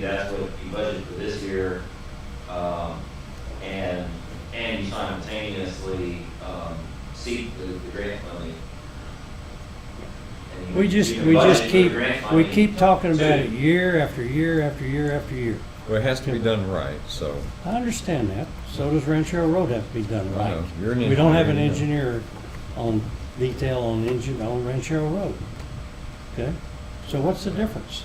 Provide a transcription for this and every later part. that's what you budget for this year. Um, and, and you simultaneously, um, seek the, the grant money. And you- We just, you we budget just for keep, grant we money. keep talking about it year after year after year after year. Well, it has to be done right, so. I understand that. So does Rancho Road have to be done I right. know. You're an We don't have an engineer, engineer on detail on engine, on Rancho Road. Okay? So what's the difference?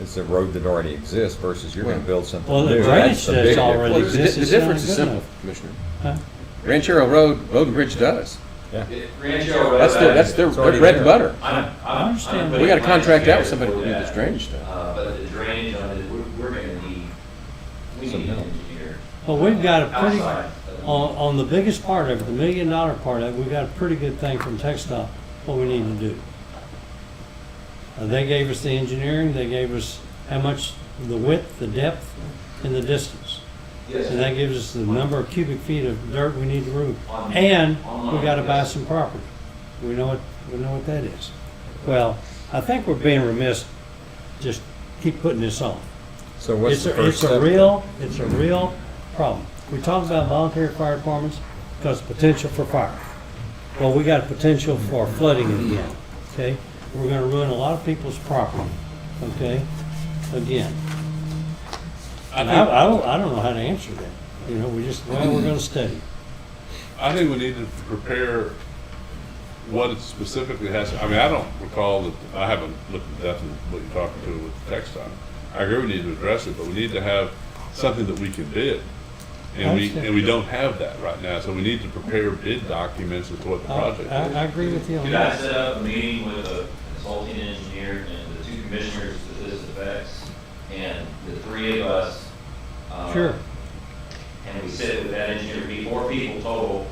It's a road that already exists versus you're gonna Well- build something new. Well, the drainage That's the big that's already Well, the di- exists the is not difference is good simple, enough. Commissioner. Huh? Ranchero Road, Road and Bridge does. It- Rancho Road. That's their, that's their uh, It's already bread and there. butter. I'm, I'm- I I'm. understand. putting We gotta plans contract out together with somebody for to do that. this drainage stuff. Uh, but the drainage on it, we're, we're gonna need, we Some need an help. engineer. Well, we've got a pretty, Outside of- on, on the biggest part of it, the million dollar part of it, we got a pretty good thing from TechStop, what we need to do. Uh, They gave us the engineering, they gave us how much, the width, the depth, and the distance. Yes. And that gives us the number of cubic feet of dirt we need to remove. And we gotta buy some property. We know what, we know what that is. Well, I think we're being remiss, just keep putting this off. So what's It's the a, first it's step? a real, it's a real problem. We talk about voluntary fire departments because potential for fire. Well, we got a potential for flooding again, okay? We're gonna ruin a lot of people's property, okay? Again. I And I, think, I don't, I don't know how to answer that. You know, we just, well, we're gonna study. I think we need to prepare what it specifically has, I mean, I don't recall that, I haven't looked at that and what you're talking to with the text on. I agree we need to address it, but we need to have something that we can bid. And we, and we don't have that right now, so we need to prepare bid documents as to what the I, Oh, I I project agree with you on Could I that. set up a meeting with a consulting engineer and the two commissioners that this affects, and the three of us? um, Sure. And we sit with that engineer, be four people total,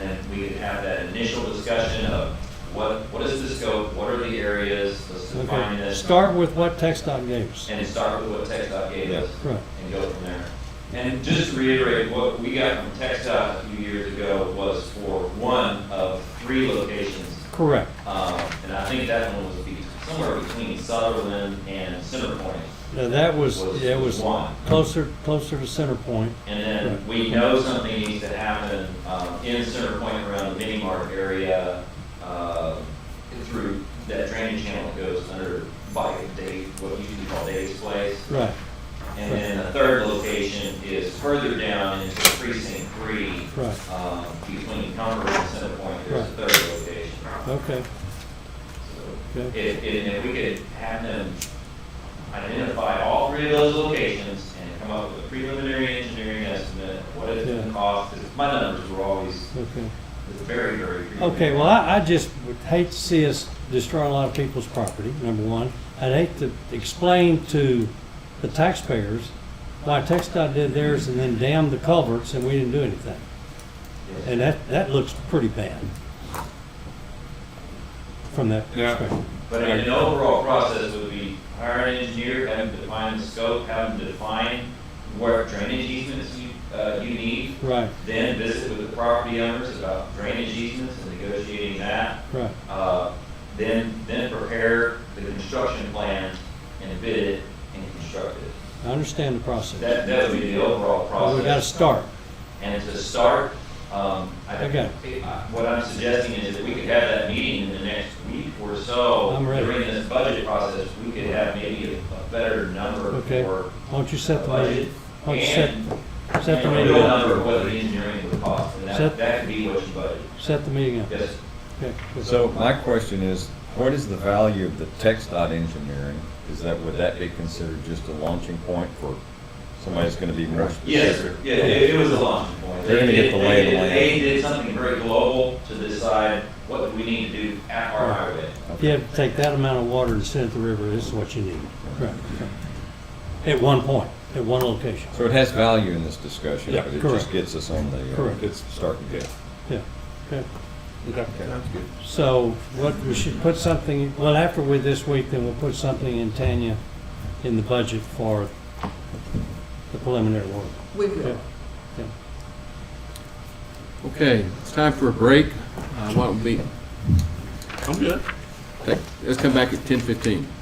and then we could have that initial discussion of what, what is the scope, what are the areas, let's define Okay, this, start with what TechStop gave us. and start with what Tech Dot gave us. Right. and go from there. And just to reiterate, what we got from Tech Dot a few years ago was for one of three locations. Correct. Um, and I think that one was be- somewhere between Sutherland and Center Point. Now, that was, Was- that was was one. closer, closer to center point. And then we know something needs to happen, um, in Center Point around the mini mart area, uh, through that drainage channel that goes under by Dave, what used to be called Dave's Place. Right, And then the third location is further down into precinct three. Right. Um, between Concord and Center Point, there's a third location. okay, So okay. If, if, if we could have them identify all three of those locations and come up with a preliminary engineering estimate, of what it's gonna Yeah. cost, 'cause my numbers were always Okay, very, very. preliminary. okay, well, I, I just would hate to see us destroy a lot of people's property, number one. I'd hate to explain to the taxpayers why TechStop did theirs and then damn the culverts and we didn't do anything. Yes. And that, that looks pretty bad. From that Yeah. perspective. But an overall process would be hire an engineer, have them define the scope, have them define where drainage easements you, uh, you need, Right, then visit with the property owners about drainage easements and negotiating that. right, Uh, Then, then prepare the construction plan and bid it and construct it. I understand the process. That, that would be the overall But we gotta process. start. And to start, um, I Okay. think, uh, what I'm suggesting is that we could have that meeting in the next week or so. I'm ready. During this budget process, we could have maybe a a better number Okay. for Won't you set the the meeting? budget. Why don't you set- And Set and a the meeting real up. number of what the engineering would cost, and that, Set- that could be what you budget. Set the meeting up. Yes, Okay, good. So my question is, what is the value of the text dot engineering? Is that, would that be considered just a launching point for somebody that's gonna be more Yes, specific? yeah, it, it was a launching point. They're gonna get the lay of the They- land. They did something very global to decide what do we need to do at our highway. If you have to take that amount of water and send it to the river, this is what you need. Correct. At one point, at one location. So it has value in this discussion, Yeah, but it correct. just gets us on the Correct. uh, is. starting Yeah. gate. Yeah, okay. Sounds good. So what, we should put something, well, after we, this week, then we'll put something in Tanya in the budget for the preliminary work. We will. Okay. Yeah. Okay, it's time for a break. Uh, Why don't we, I'm good. take- let's come back at ten fifteen.